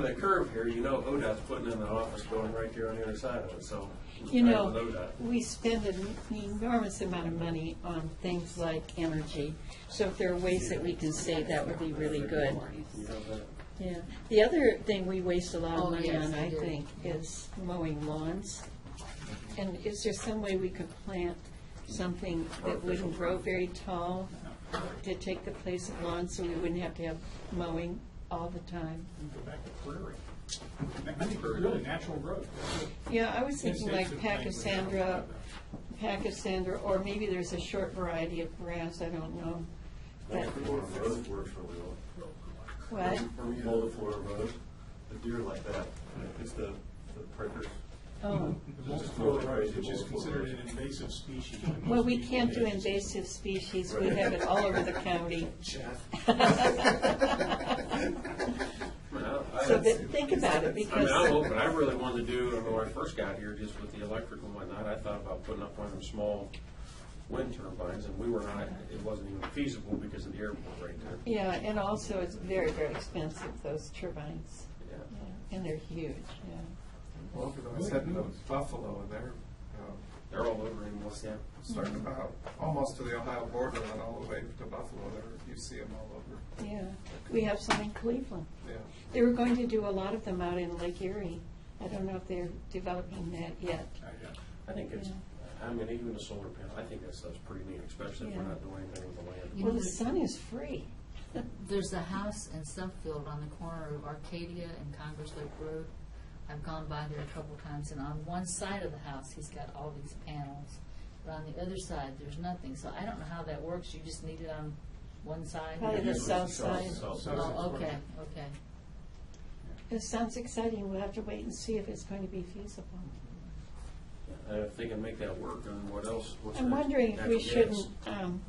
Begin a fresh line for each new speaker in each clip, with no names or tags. the curve here, you know ODOT's putting in an office building right there on the other side of it, so.
You
right
know,
with ODOT.
we spend an enormous amount of money on things like energy, so if there are ways that we can save, that would be really good.
You know, that-
Yeah. The other thing we waste a lot
Oh,
of money
yes,
on,
we
I
do.
think, is mowing lawns. And is there some way we could plant something that wouldn't grow very tall to take the place of lawns, so we wouldn't have to have mowing all the time?
Go back to prairie. I think it's really natural growth.
Yeah, I was thinking like
Instincts of things we
Pachysandra,
don't
Pachysandra, or maybe there's a short variety of grass, I don't know. But,
Mow the floor of road works really well.
what?
When you mow the floor of road, the deer like that, it's the, the prickers.
Oh,
Most prairie, Which is considered an invasive species. by most
well, we
people.
can't do invasive species, we have it all over the county.
I mean, I- I-
So but think about it,
I mean, I'm
because,
open, I really wanted to do, when I first got here, just with the electric and whatnot, I thought about putting up one of them small wind turbines, and we were not, it wasn't even feasible because of the airport right there.
yeah, and also it's very, very expensive, those turbines,
Yeah.
Yeah, and they're huge, yeah.
Well, I was heading to Buffalo, and they're um,
They're all over anymore, yeah.
starting
Mm-hmm.
about, almost to the Ohio border and all the way to Buffalo, there, you see them all over,
Yeah, we have some in Cleveland.
yeah.
They were going to do a lot of them out in Lake Erie. I don't know if they're developing that yet.
I got it.
I think it's, I mean, even the solar panel, I think that stuff's pretty neat, especially if we're not doing anything with the land.
You
Well,
know,
the sun is free.
There's a house in Southfield on the corner of Arcadia and Congress Lake Road. I've gone by there a couple times, and on one side of the house, he's got all these panels, but on the other side, there's nothing. So I don't know how that works. You just need it on one side?
Probably the south side.
South side.
Oh, okay, okay.
It sounds exciting. We'll have to wait and see if it's going to be feasible.
Uh, If they can make that work, then what else? What's
I'm
next?
wondering if
Natural
we
gas.
shouldn't um,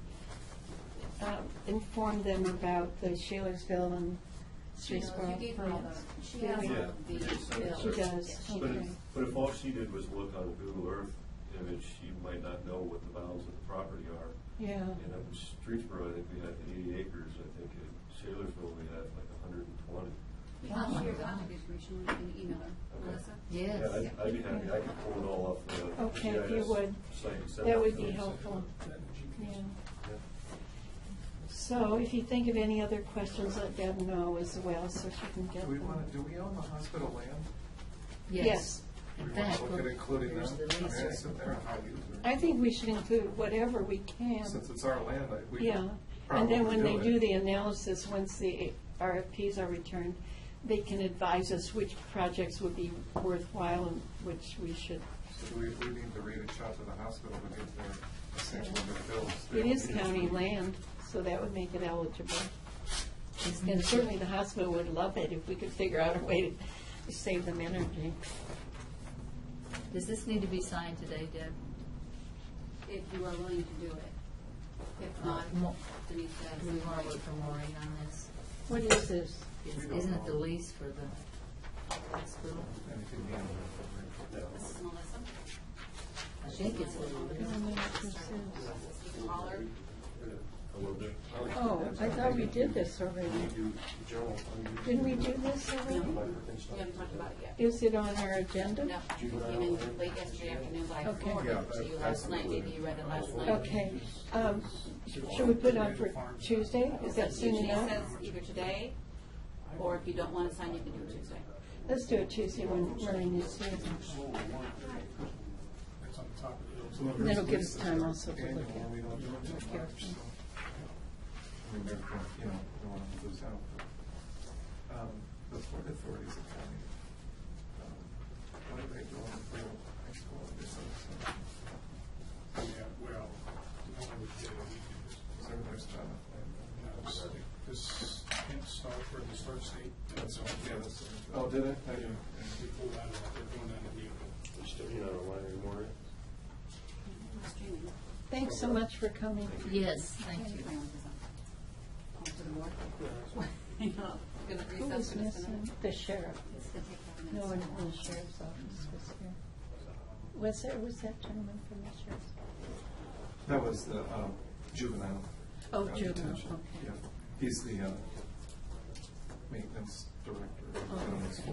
uh, inform them about the Shaler'sville and Streetsboro
She
plans.
She has all of the
She does,
bills. Yeah, she
But if,
okay.
but if all she did was look on Google Earth image, she might not know what the bounds of the property are.
Yeah,
And up in Streetsboro, I think we had eighty acres, I think in Shaler'sville, we had like hundred and twenty.
I'll share contact information with you and email her. Melissa?
Yes.
Yeah, I'd, I'd be happy, I could pull it all up. the
Okay, if you
GIS
would.
site and send
that
it
would
to
be
us.
helpful. Yeah. So if you think of any other questions, let Deb know as well, so she can get
Do we
them.
want to, do we own the hospital land?
Yes.
Do we
In
want
fact,
to look at including that?
here's the
I mean,
lease.
it's in there, how you-
I think we should include whatever we can.
Since it's our land, I, we
Yeah,
could
and
probably
then when they do
do it.
the analysis, once the RFPs are returned, they can advise us which projects would be worthwhile and which we should.
So We, we need to reach out to the hospital to get their, essentially their bills. They
It
don't
is
need to
county
be-
land, so that would make it eligible. And certainly the hospital would love it if we could figure out a way to save them energy.
Does this need to be signed today, Deb?
If you are willing to do it.
Uh,
If not,
Mo-
Denise
Do Uh, we want to
does.
wait for Maureen on this?
What is this?
Is-
We don't
Isn't it the
know.
lease for the hospital?
And if you can, we'll-
This is Melissa.
I think it's
I
the
don't know what this is.
You call her.
I will do.
Oh, I thought we did this already. Didn't we do this already?
We haven't talked about it yet.
Is it on our agenda?
No, it came in late yesterday afternoon, but I
Okay.
forwarded it to
Yeah,
you last night. Maybe you read it last night.
Okay, um, should we put it on for Tuesday? Is that soon
Usually it
enough?
says either today, or if you don't want to sign, you can do it Tuesday.
Let's do it Tuesday when Maureen is here.
It's on the top of the hill.
That'll give us time also to
Annual,
look at.
we don't do it till March, so. I mean, they're, gonna, you know, they want to lose out. but, um, The Port Authority is a county. um, What are they doing with real high school? and this other stuff?
Yeah, well, the only way to do it
Is there, there's not enough land.
is, uh, This can't start for the start state.
That's all, yeah, that's.
Oh, did
it?
Yeah, we pulled out of, they're going down to Neola.
You're still not online anymore?
Thanks so much for coming.
Yes, thank you.
Gonna
Who was
recess for just a minute.
missing? The sheriff.
It's gonna take five
No
minutes.
one from the sheriff's office was here. Was there, was that gentleman from the sheriff's?
That was the um, juvenile.
Oh,
uh,
juvenile,
detention.
okay.
Yeah. He's the uh, maintenance
Oh,
director of zoning